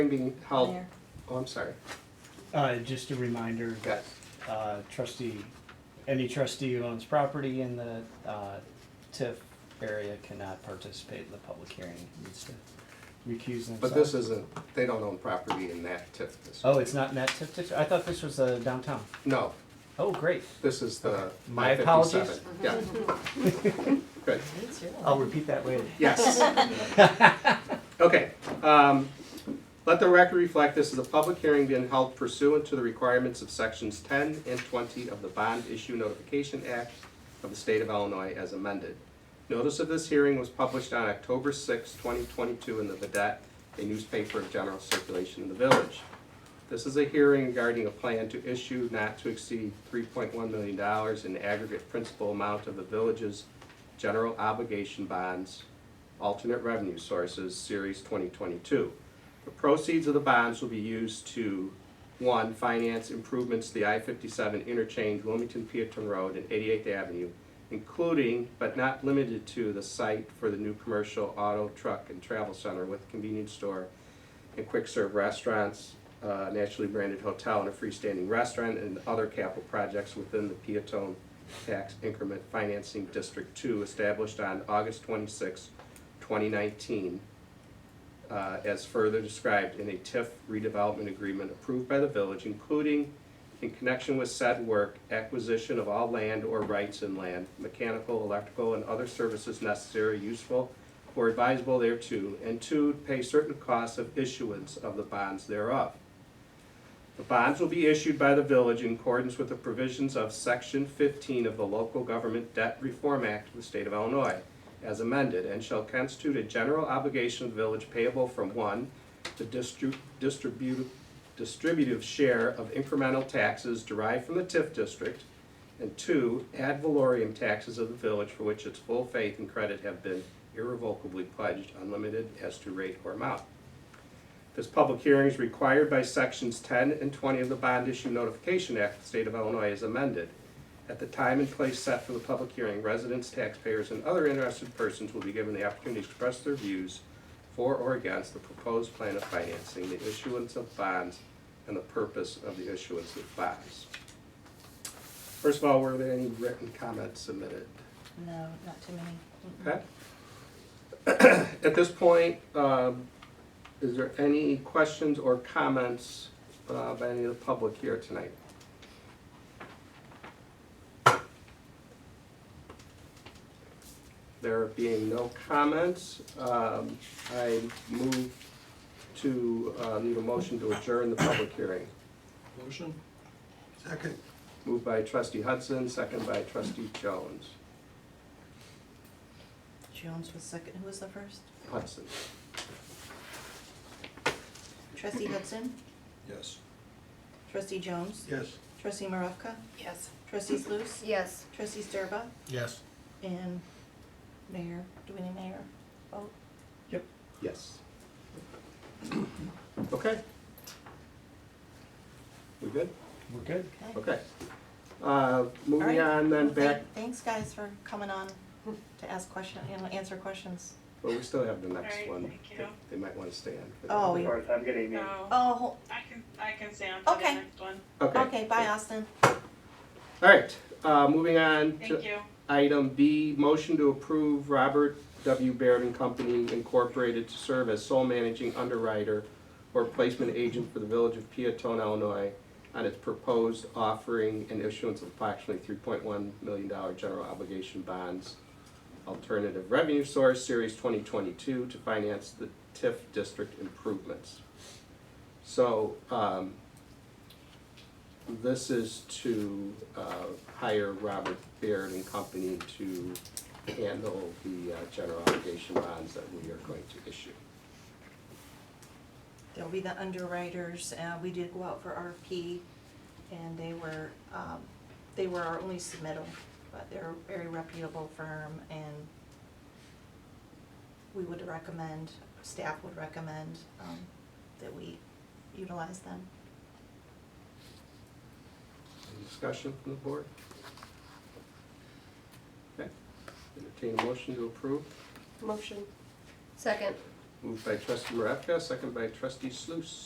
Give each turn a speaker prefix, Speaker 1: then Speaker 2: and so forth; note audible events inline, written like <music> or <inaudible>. Speaker 1: Being held,
Speaker 2: Mayor.
Speaker 1: oh, I'm sorry.
Speaker 3: Uh, just a reminder that, uh, trustee, any trustee who owns property in the, uh, TIF area cannot participate in the public hearing, needs to recuse themselves.
Speaker 1: But this isn't, they don't own property in that TIF district.
Speaker 3: Oh, it's not in that TIF district? I thought this was, uh, downtown.
Speaker 1: No,
Speaker 3: Oh, great.
Speaker 1: this is the.
Speaker 3: My
Speaker 1: 157. Yeah. Good,
Speaker 3: I'll repeat that later.
Speaker 1: yes. Okay, um, let the record reflect, this is a public hearing being held pursuant to the requirements of sections ten and twenty of the Bond Issue Notification Act of the State of Illinois as amended. Notice of this hearing was published on October sixth, twenty twenty-two in the Vedette, a newspaper of general circulation in the village. This is a hearing regarding a plan to issue not to exceed three point one million dollars in aggregate principal amount of the village's general obligation bonds, alternate revenue sources, series twenty twenty-two. The proceeds of the bonds will be used to, one, finance improvements to the I fifty-seven interchange, Wilmington Peatone Road and Eighty-Eighth Avenue, including but not limited to the site for the new commercial auto, truck, and travel center with convenience store and quick serve restaurants, uh, nationally branded hotel and a freestanding restaurant and other capital projects within the Peatone Tax Increment Financing District Two established on August 26, twenty nineteen, uh, as further described in a TIF redevelopment agreement approved by the village, including in connection with said work, acquisition of all land or rights in land, mechanical, electrical, and other services necessary, useful, or advisable thereto, and two, pay certain costs of issuance of the bonds thereof. The bonds will be issued by the village in accordance with the provisions of Section 15 of the Local Government Debt Reform Act of the State of Illinois, as amended, and shall constitute a general obligation of the village payable from, one, the distru- distribu- distributive share of incremental taxes derived from the TIF district, and two, ad valorem taxes of the village for which its full faith and credit have been irrevocably pledged, unlimited as to rate or amount. This public hearing is required by sections ten and twenty of the Bond Issue Notification Act of the State of Illinois as amended. At the time and place set for the public hearing, residents, taxpayers, and other interested persons will be given the opportunity to express their views for or against the proposed plan of financing, the issuance of bonds, and the purpose of the issuance of bonds. First of all, were there any written comments submitted?
Speaker 2: No, not too many.
Speaker 1: Okay. <coughs> At this point, um, is there any questions or comments uh, by any of the public here tonight? There being no comments, um, I move to, uh, need a motion to adjourn the public hearing.
Speaker 4: Motion? Second.
Speaker 1: Moved by trustee Hudson, second by trustee Jones.
Speaker 2: Jones was second, who was the first?
Speaker 1: Hudson,
Speaker 2: Trustee Hudson,
Speaker 4: Yes.
Speaker 2: trustee Jones,
Speaker 4: Yes.
Speaker 2: trustee Maravka? Yes. Trustee Sluse,
Speaker 5: Yes.
Speaker 2: trustee Sturba,
Speaker 4: Yes.
Speaker 2: and mayor, do we need mayor? Oh,
Speaker 1: yes. Okay. We good?
Speaker 3: We're good.
Speaker 2: okay.
Speaker 1: Okay. Uh, Moving on then
Speaker 2: Well, thank-
Speaker 1: back,
Speaker 2: Thanks, guys, for coming on to ask question, and answer questions.
Speaker 1: well, we still have the next
Speaker 6: Alright,
Speaker 1: one.
Speaker 6: thank
Speaker 1: that
Speaker 6: you.
Speaker 1: They might want to stay on. for that.
Speaker 2: Oh,
Speaker 7: Of
Speaker 2: yeah.
Speaker 7: course, have a good evening.
Speaker 6: So
Speaker 2: Oh, hol-
Speaker 6: I can, I can stay on for the
Speaker 2: Okay.
Speaker 6: next one.
Speaker 2: okay, bye, Austin.
Speaker 1: All right, uh, moving on
Speaker 6: Thank
Speaker 1: to
Speaker 6: you.
Speaker 1: item B, motion to approve Robert W. Baird and Company Incorporated to serve as sole managing underwriter or placement agent for the Village of Peatone, Illinois, on its proposed offering and issuance of approximately three point one million dollar general obligation bonds, alternative revenue source, series twenty twenty-two, to finance the TIF district improvements. So, um, this is to, uh, hire Robert Baird and Company to handle the, uh, general obligation bonds that we are going to issue.
Speaker 2: They'll be the underwriters, uh, we did go out for RP, and they were, um, they were our only submittal, but they're a very reputable firm, and we would recommend, staff would recommend, um, that we utilize them.
Speaker 1: Any discussion from the board? Okay, entertain a motion to approve,
Speaker 5: Motion. Second.
Speaker 1: Moved by trustee Maravka, second by trustee Sluse.